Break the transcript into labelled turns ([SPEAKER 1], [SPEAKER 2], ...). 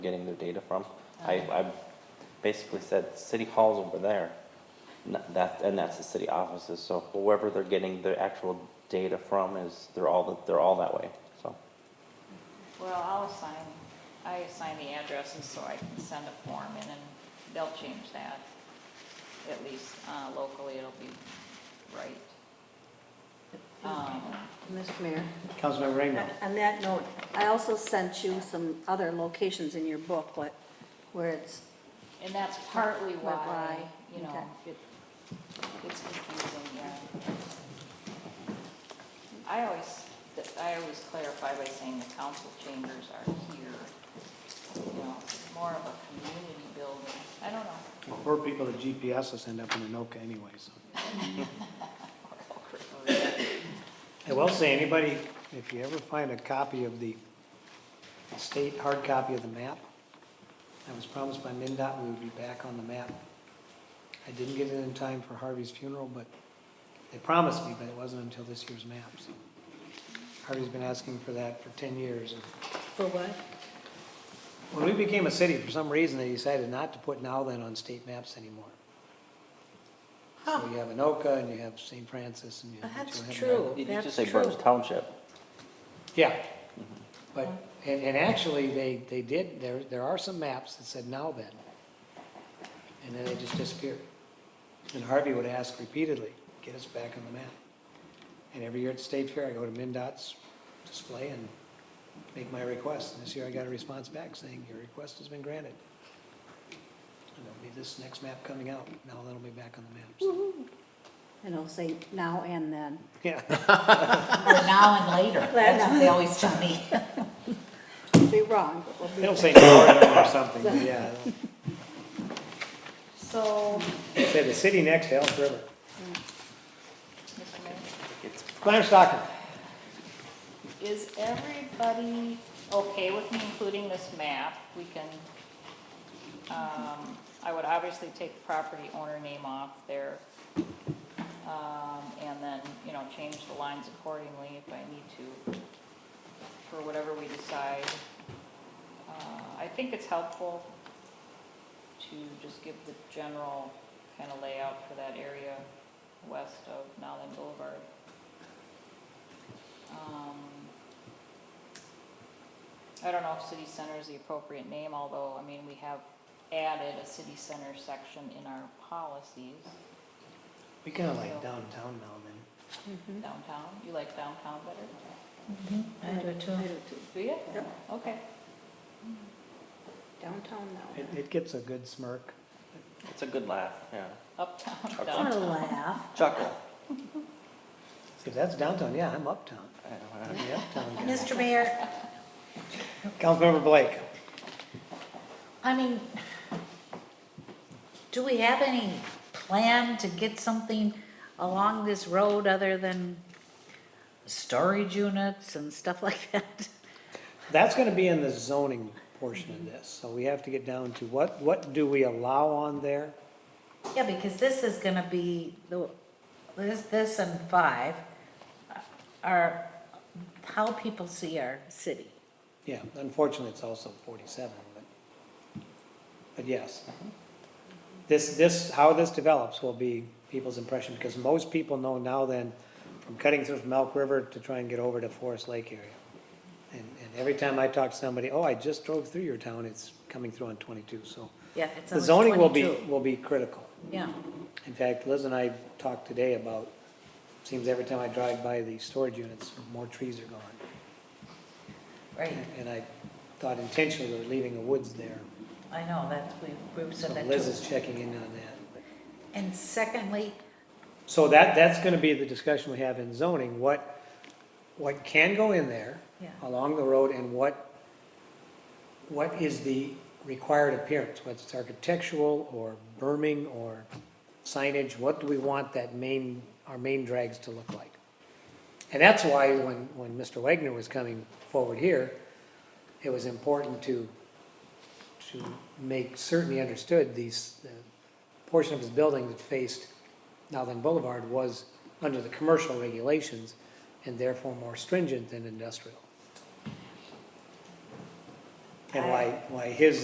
[SPEAKER 1] getting their data from. I, I basically said, city hall's over there. N- That, and that's the city offices, so whoever they're getting the actual data from is, they're all, they're all that way, so.
[SPEAKER 2] Well, I'll assign, I assign the addresses so I can send a form in and they'll change that. At least uh, locally, it'll be right. Um,
[SPEAKER 3] Mr. Mayor,
[SPEAKER 4] Councilmember Rainville.
[SPEAKER 3] on that note, I also sent you some other locations in your booklet where it's,
[SPEAKER 2] And that's partly
[SPEAKER 3] But why?
[SPEAKER 2] why, you know, it- it's confusing, yeah. I always, I always clarify by saying the council chambers are here, you know, it's more of a community building. I don't know.
[SPEAKER 4] Poor people that GPSs end up in Anoka anyway, so. I will say, anybody, if you ever find a copy of the state, hard copy of the map, I was promised by MinDOT we would be back on the map. I didn't get it in time for Harvey's funeral, but they promised me, but it wasn't until this year's map, so. Harvey's been asking for that for ten years, and
[SPEAKER 3] for what?
[SPEAKER 4] When we became a city, for some reason, they decided not to put Nowland on state maps anymore. So you have Anoka and you have St. Francis and you have.
[SPEAKER 3] That's
[SPEAKER 4] you have-
[SPEAKER 3] true.
[SPEAKER 1] Did you
[SPEAKER 3] That's
[SPEAKER 1] just say
[SPEAKER 3] true.
[SPEAKER 1] Burns Township?
[SPEAKER 4] Yeah, but, and, and actually, they, they did, there, there are some maps that said now then. And then they just disappeared. And Harvey would ask repeatedly, get us back on the map. And every year at the state fair, I go to MinDOT's display and make my request. And this year I got a response back saying, your request has been granted. And it'll be this next map coming out, now that'll be back on the map. So,
[SPEAKER 3] And it'll say now and then.
[SPEAKER 4] Yeah,
[SPEAKER 5] Or now and later, that's what they always tell me.
[SPEAKER 3] Be wrong, but we'll be.
[SPEAKER 4] it'll say Northern or something, but yeah.
[SPEAKER 2] So,
[SPEAKER 4] it'll Say the city next to Elk River.
[SPEAKER 2] Mr. Mayor?
[SPEAKER 1] It's
[SPEAKER 4] Glenn Stockman.
[SPEAKER 2] Is everybody okay with me including this map? We can, um, I would obviously take the property owner name off there. Um, and then, you know, change the lines accordingly if I need to, for whatever we decide. Uh, I think it's helpful to just give the general kind of layout for that area west of Nowland Boulevard. Um, I don't know if city center is the appropriate name, although, I mean, we have added a city center section in our policies
[SPEAKER 4] We kind of like downtown now and then.
[SPEAKER 3] Mhm.
[SPEAKER 2] downtown. You like downtown better?
[SPEAKER 5] I do too.
[SPEAKER 3] I do too.
[SPEAKER 2] Do you?
[SPEAKER 3] Yep.
[SPEAKER 2] Okay.
[SPEAKER 3] Downtown now.
[SPEAKER 4] It, it gets a good smirk.
[SPEAKER 1] it's a good laugh, yeah.
[SPEAKER 2] Uptown,
[SPEAKER 1] Uptown.
[SPEAKER 3] I want to
[SPEAKER 2] downtown.
[SPEAKER 3] laugh.
[SPEAKER 1] Chuckle.
[SPEAKER 4] See, if that's downtown, yeah, I'm uptown.
[SPEAKER 1] I don't know.
[SPEAKER 4] I'm the uptown guy.
[SPEAKER 3] Mr. Mayor,
[SPEAKER 4] Councilmember Blake.
[SPEAKER 5] I mean, do we have any plan to get something along this road other than storage units and stuff like that?
[SPEAKER 4] That's gonna be in the zoning portion of this, so we have to get down to what, what do we allow on there?
[SPEAKER 5] Yeah, because this is gonna be, the this, this and five are how people see our city.
[SPEAKER 4] Yeah, unfortunately, it's also forty-seven, but, but yes. This, this, how this develops will be people's impression, because most people know now then, from cutting through from Elk River to try and get over to Forest Lake area. And, and every time I talk to somebody, oh, I just drove through your town, it's coming through on twenty-two, so.
[SPEAKER 5] Yeah, it's
[SPEAKER 4] The
[SPEAKER 5] always
[SPEAKER 4] zoning will be,
[SPEAKER 5] 22.
[SPEAKER 4] will be critical.
[SPEAKER 5] Yeah,
[SPEAKER 4] In fact, Liz and I talked today about, seems every time I drive by the storage units, more trees are gone.
[SPEAKER 5] right,
[SPEAKER 4] And I thought intentionally we're leaving the woods there.
[SPEAKER 5] I know, that, we, we
[SPEAKER 4] So
[SPEAKER 5] said that
[SPEAKER 4] Liz
[SPEAKER 5] too.
[SPEAKER 4] is checking in on that.
[SPEAKER 5] And secondly,
[SPEAKER 4] So that, that's gonna be the discussion we have in zoning, what, what can go in there
[SPEAKER 5] Yeah.
[SPEAKER 4] along the road and what, what is the required appearance, whether it's architectural or berming or signage, what do we want that main, our main drags to look like? And that's why when, when Mr. Wagner was coming forward here, it was important to, to make certain he understood these, the portion of his building that faced Nowland Boulevard was under the commercial regulations and therefore more stringent than industrial. and why, why his